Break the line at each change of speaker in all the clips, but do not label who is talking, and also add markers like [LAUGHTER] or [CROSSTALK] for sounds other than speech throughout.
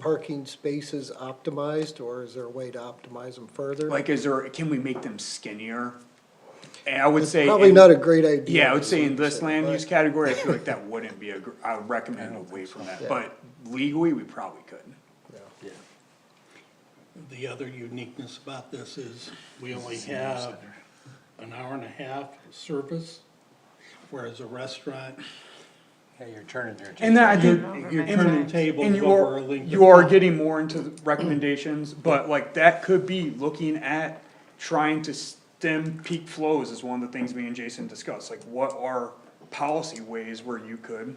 parking spaces optimized, or is there a way to optimize them further?
Like, is there, can we make them skinnier? And I would say.
Probably
in-
not a great idea.
Yeah, I would say in this
So,
land
but-
use category, I feel like that wouldn't be a, gr- I would recommend away from that, but legally, we probably could.
The other uniqueness about this is we only have an hour and a half service, whereas a restaurant,
Yeah, you're turning there.
And then I
Over
think.
my
you're
And-
turning tables
And you
over
are,
a length of
you are
time.
getting more into the recommendations, but like that could be looking at trying to stem peak flows is one of the things me and Jason discussed, like what are policy ways where you could?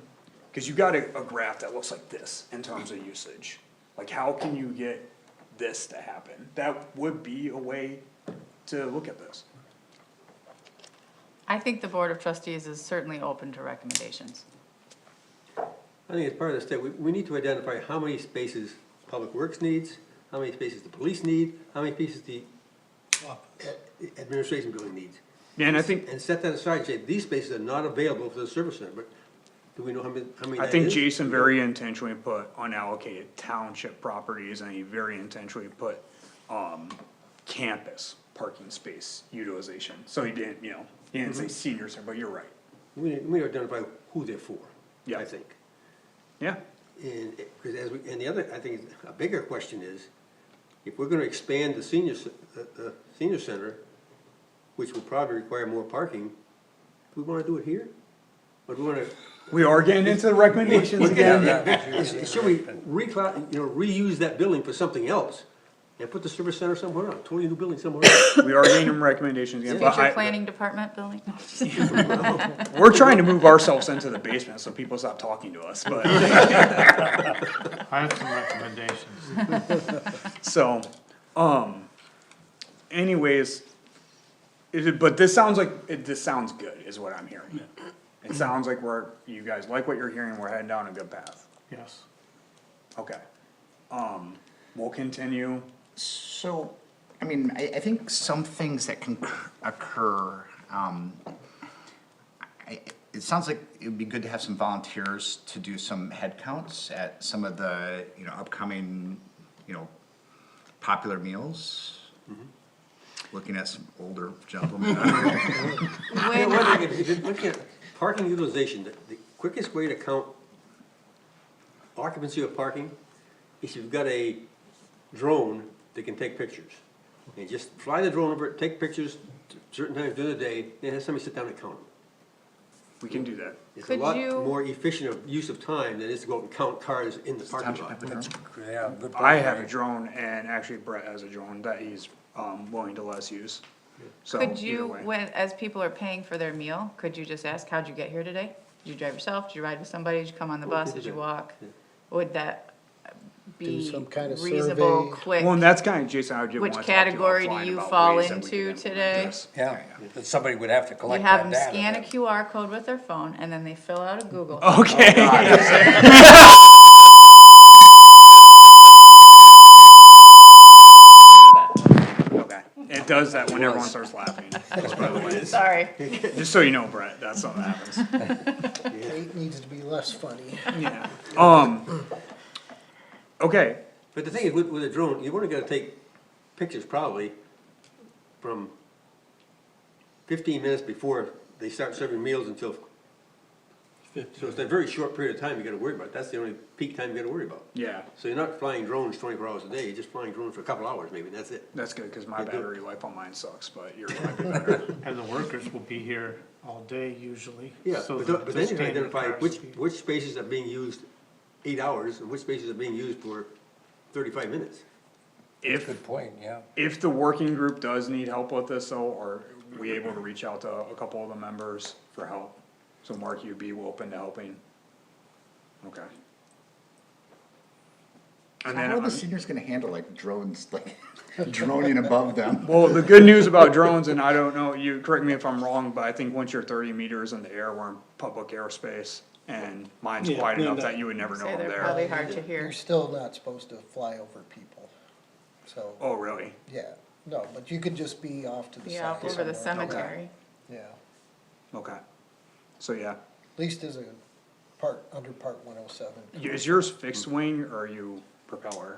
Cause you got a, a graph that looks like this in terms of usage, like how can you get this to happen? That would be a way to look at this.
I think the Board of Trustees is certainly open to recommendations.
I think as part of the state, we, we need to identify how many spaces Public Works needs, how many spaces the police need, how many spaces the uh, administration building needs.
Yeah, And I think,
And set that aside, and say, these spaces are not available for the service center, but do we know how many, how many
I
that
think
is?
Jason very intentionally put unallocated township properties and he very intentionally put, um, campus parking space utilization. So he didn't, you know, he didn't say senior center, but you're right.
We, need- we need to identify who they're for,
Yeah.
I think.
Yeah,
And, it- cause as we, and the other, I think, is a bigger question is, if we're gonna expand the senior, ce- the, the senior center, which will probably require more parking, do we wanna do it here? Or do we wanna,
we are getting into the recommendations again.
is- should we recla, you know, reuse that building for something else? And put the service center somewhere else, totally new building somewhere else?
We are getting them recommendations again, but
Future
I,
planning department
[LAUGHS]
building?
we're trying to move ourselves into the basement so people stop talking to us, but,
I have some recommendations.
[LAUGHS]
so, um, anyways. It, but this sounds like, it, this sounds good is what I'm hearing. It sounds like we're, you guys like what you're hearing, we're heading down a good path.
Yes.
Okay. Um, we'll continue.
So, I mean, I, I think some things that can cur- occur, um, I, it sounds like it would be good to have some volunteers to do some head counts at some of the, you know, upcoming, you know, popular meals. Looking at some older gentlemen.
You know, one thing, if you look at Parking utilization, the, the quickest way to count occupancy of parking is you've got a drone that can take pictures. And just fly the drone over, it, take pictures t- certain times during the day, then have somebody sit down and count them.
We can do that.
It's a
Could
lot
you-
more efficient of use of time than it is to go out and count cars in the parking lot.
Yeah.
I have a drone and actually Brett has a drone that he's, um, willing to let us use. So
Could
either
you,
way.
when, as people are paying for their meal, could you just ask, how'd you get here today? Did you drive yourself? Did you ride with somebody? Did you come on the bus? Did you walk? Would that be
some kind of
reasonable,
survey.
quick?
Well, and that's kinda, Jason, I did wanna
Which
talk to you
category do
offline
you
about
fall
ways that we
into
could implement
today?
this.
Yeah,
that somebody would have to
You have them scan a QR code with their phone and then they fill out a Google.
Oh. Okay. Oh, Okay. [LAUGHS] It does that when everyone starts laughing, just by the way.
Sorry.
Just so you know, Brett, that's something that happens.
It needs to be less funny.
Yeah. Um, okay,
But the thing is, with, with a drone, you've only gotta take pictures probably from fifteen minutes before they start serving meals until, so it's a very short period of time you gotta worry about, that's the only peak time you gotta worry about.
yeah,
So you're not flying drones twenty-four hours a day, you're just flying drones for a couple hours maybe, and that's it.
that's good, cause my
do.
battery life on mine sucks, but [LAUGHS] yours might be better.
And the workers will be here all day usually.
Yeah,
so
but
the-
th- but
the
then you
standard
identify
cars
which,
will be-
which spaces are being used eight hours, and which spaces are being used for thirty-five minutes.
If,
point, yeah.
if the working group does need help with this though, are we able to reach out to a couple of the members for help? So Mark, you'd be open to helping? Okay. And then,
How are the
um,
seniors gonna handle like drones, like [LAUGHS] droning above them?
well, the good news about drones, and I don't know, you correct me if I'm wrong, but I think once you're thirty meters in the air, we're in public airspace. And mine's
Yeah,
wide
no,
enough
no.
that you would never know
Say
I'm
they're
there.
probably hard to
You're
hear.
still not supposed to fly over people, so,
Oh, really?
yeah, no, but you could just be off to the side.
Yeah, up over the
somewhere.
cemetery.
Yeah, at
Okay. So, yeah,
least as a part, under part one oh seven.
Y- is yours fixed wing or are you, propeller.